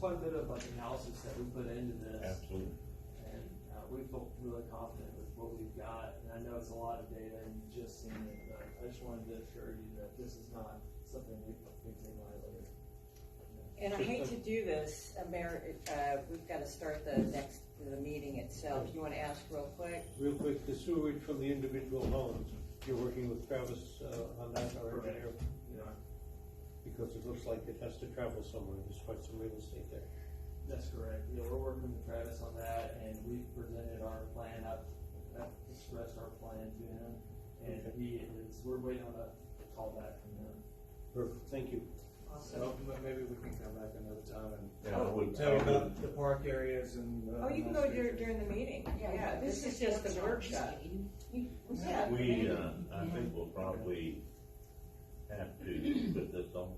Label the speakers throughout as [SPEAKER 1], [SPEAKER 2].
[SPEAKER 1] quite a bit of like analysis that we put into this.
[SPEAKER 2] Absolutely.
[SPEAKER 1] And, uh, we feel really confident with what we've got, and I know it's a lot of data and you've just seen it, but I just wanted to assure you that this is not something we, we take lightly.
[SPEAKER 3] And I hate to do this, uh, Mayor, uh, we've got to start the next, the meeting itself. You want to ask real quick?
[SPEAKER 4] Real quick, the sewage from the individual homes, you're working with Travis uh, on that, our engineer,
[SPEAKER 1] You know,
[SPEAKER 4] because it looks like it has to travel somewhere, there's quite some real estate there.
[SPEAKER 1] That's correct. Yeah, we're working with Travis on that, and we presented our plan, I've, I've expressed our plan to him, and
[SPEAKER 4] Okay.
[SPEAKER 1] he is, we're waiting on a call back from him.
[SPEAKER 4] Perfect, thank you.
[SPEAKER 3] Awesome.
[SPEAKER 5] So but maybe we can come back another time and
[SPEAKER 2] Yeah, I would-
[SPEAKER 5] tell
[SPEAKER 2] I
[SPEAKER 5] about
[SPEAKER 2] would-
[SPEAKER 5] the park areas and. uh,
[SPEAKER 3] Oh, you can go during, during the meeting. Yeah, this is just a workshop. Yeah.
[SPEAKER 2] We, uh, I think we'll probably have to put this on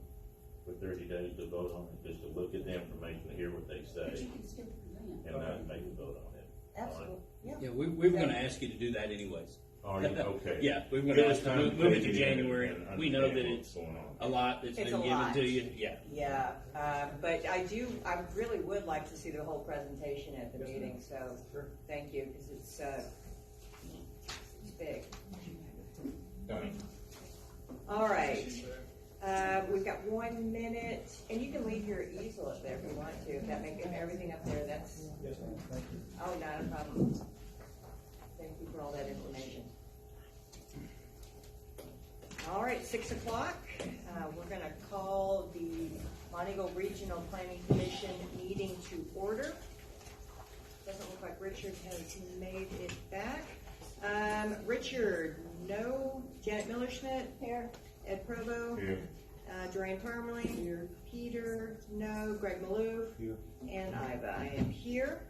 [SPEAKER 2] for thirty days to vote on it, just to look at the information, hear what they
[SPEAKER 6] But you
[SPEAKER 2] say,
[SPEAKER 6] can still present.
[SPEAKER 2] and then make a vote on it.
[SPEAKER 3] Absolutely, yeah.
[SPEAKER 7] Yeah, we, we were gonna ask you to do that anyways.
[SPEAKER 2] Are you, okay?
[SPEAKER 7] Yeah, we were
[SPEAKER 2] Give
[SPEAKER 7] gonna
[SPEAKER 2] us
[SPEAKER 7] ask you to
[SPEAKER 2] time
[SPEAKER 7] move move it to
[SPEAKER 2] take in
[SPEAKER 7] January.
[SPEAKER 2] and
[SPEAKER 7] We know that
[SPEAKER 2] understand what's
[SPEAKER 7] it's
[SPEAKER 2] Going on.
[SPEAKER 7] a lot that's
[SPEAKER 3] It's a
[SPEAKER 7] been given
[SPEAKER 3] lot.
[SPEAKER 7] to you, yeah.
[SPEAKER 3] Yeah, uh, but I do, I really would like to see the whole presentation at the
[SPEAKER 5] Yes, ma'am.
[SPEAKER 3] meeting, so
[SPEAKER 5] Sure.
[SPEAKER 3] thank you, because it's, uh, it's big. All right, uh, we've got one minute, and you can leave your easel up there if you want to, if that make, if everything up there, that's,
[SPEAKER 5] Yes, ma'am, thank you.
[SPEAKER 3] oh, not a problem. Thank you for all that information. All right, six o'clock, uh, we're gonna call the Montego Regional Planning Commission meeting to order. Doesn't look like Richard has made it back. Um, Richard, no, Janet Miller Schmidt? Here. Ed Provo?
[SPEAKER 2] Here.
[SPEAKER 3] Uh, Joanne Parmalee? Here. Peter, no, Greg Maloof?
[SPEAKER 4] Here.
[SPEAKER 3] And Iva, I am here.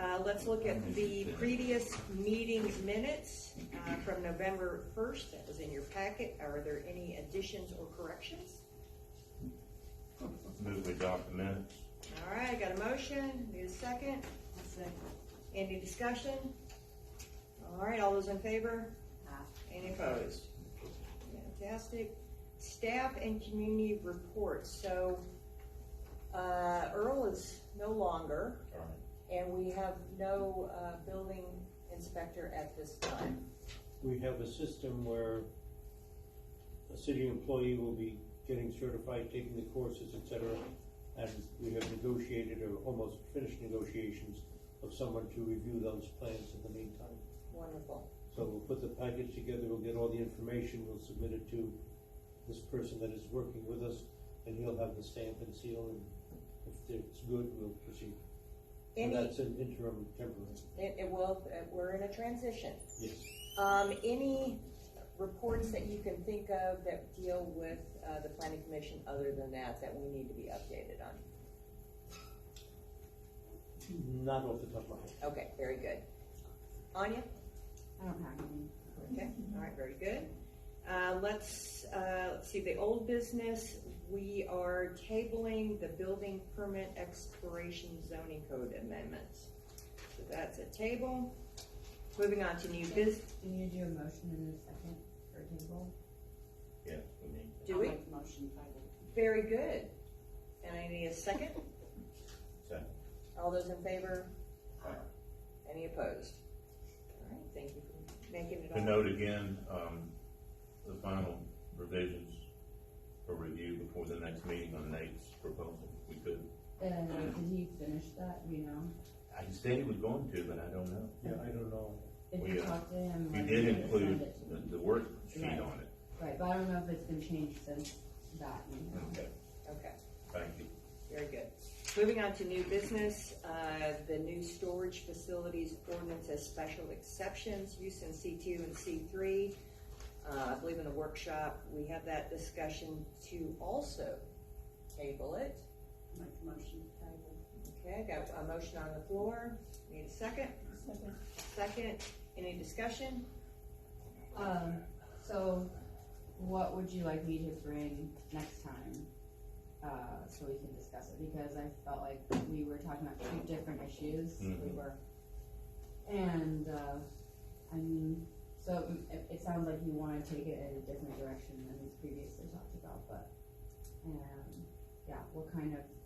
[SPEAKER 3] Uh, let's look at the previous meeting minutes, uh, from November first, that was in your packet. Are there any additions or corrections?
[SPEAKER 2] Move we adopt the minutes.
[SPEAKER 3] All right, I got a motion, need a second? Any discussion? All right, all those in favor? Any opposed? Fantastic. Staff and community reports, so, uh, Earl is no longer,
[SPEAKER 2] All right.
[SPEAKER 3] and we have no, uh, building inspector at this time.
[SPEAKER 4] We have a system where a city employee will be getting certified, taking the courses, et cetera, and we have negotiated or almost finished negotiations of someone to review those plans in the meantime.
[SPEAKER 3] Wonderful.
[SPEAKER 4] So we'll put the package together, we'll get all the information, we'll submit it to this person that is working with us, and he'll have the stamp and seal, and if it's good, we'll proceed. And
[SPEAKER 3] Any,
[SPEAKER 4] that's an interim temporary,
[SPEAKER 3] it, it will, uh, we're in a transition.
[SPEAKER 4] yes.
[SPEAKER 3] Um, any reports that you can think of that deal with, uh, the planning commission other than that, that we need to be updated on?
[SPEAKER 4] Not off the top of my head.
[SPEAKER 3] Okay, very good. Anya?
[SPEAKER 6] I don't have any.
[SPEAKER 3] Okay, all right, very good. Uh, let's, uh, let's see, the old business, we are tabling the building permit expiration zoning code amendments. So that's a table. Moving on to new biz,
[SPEAKER 6] Do you do a motion in a second for table?
[SPEAKER 2] Yes, we need.
[SPEAKER 3] do we?
[SPEAKER 6] I'll make a motion if I will.
[SPEAKER 3] Very good. And I need a second.
[SPEAKER 2] Second.
[SPEAKER 3] All those in favor?
[SPEAKER 2] Aye.
[SPEAKER 3] Any opposed? All right, thank you for making it
[SPEAKER 2] To
[SPEAKER 3] all.
[SPEAKER 2] note again, um, the final revisions for review before the next meeting on Nate's proposal, we could. Uh-huh.
[SPEAKER 6] Uh, did he finish that, Do you know?
[SPEAKER 2] I said he was going to, but I don't know.
[SPEAKER 4] Yeah, I don't know.
[SPEAKER 6] If
[SPEAKER 2] We,
[SPEAKER 6] you
[SPEAKER 2] uh,
[SPEAKER 6] talked to him.
[SPEAKER 2] We
[SPEAKER 6] like,
[SPEAKER 2] did
[SPEAKER 6] send
[SPEAKER 2] include
[SPEAKER 6] it to
[SPEAKER 2] the,
[SPEAKER 6] me.
[SPEAKER 2] the worksheet on it.
[SPEAKER 6] Right, but I don't know if it's been changed since that, you know?
[SPEAKER 2] Okay,
[SPEAKER 3] Okay.
[SPEAKER 2] thank you.
[SPEAKER 3] Very good. Moving on to new business, uh, the new storage facilities ordinance as special exceptions, use in C two and C three. Uh, I believe in the workshop, we had that discussion to also table it.
[SPEAKER 6] Make a motion to table.
[SPEAKER 3] Okay, got a motion on the floor. Need a second? Second. Any discussion?
[SPEAKER 6] Um, so what would you like me to bring next time? Uh, so we can discuss it, because I felt like we were talking about two different issues, we
[SPEAKER 2] Mhm.
[SPEAKER 6] were. And, uh, I mean, so it, it sounds like you wanna take it in a different direction than we previously talked about, but, um, yeah, what kind of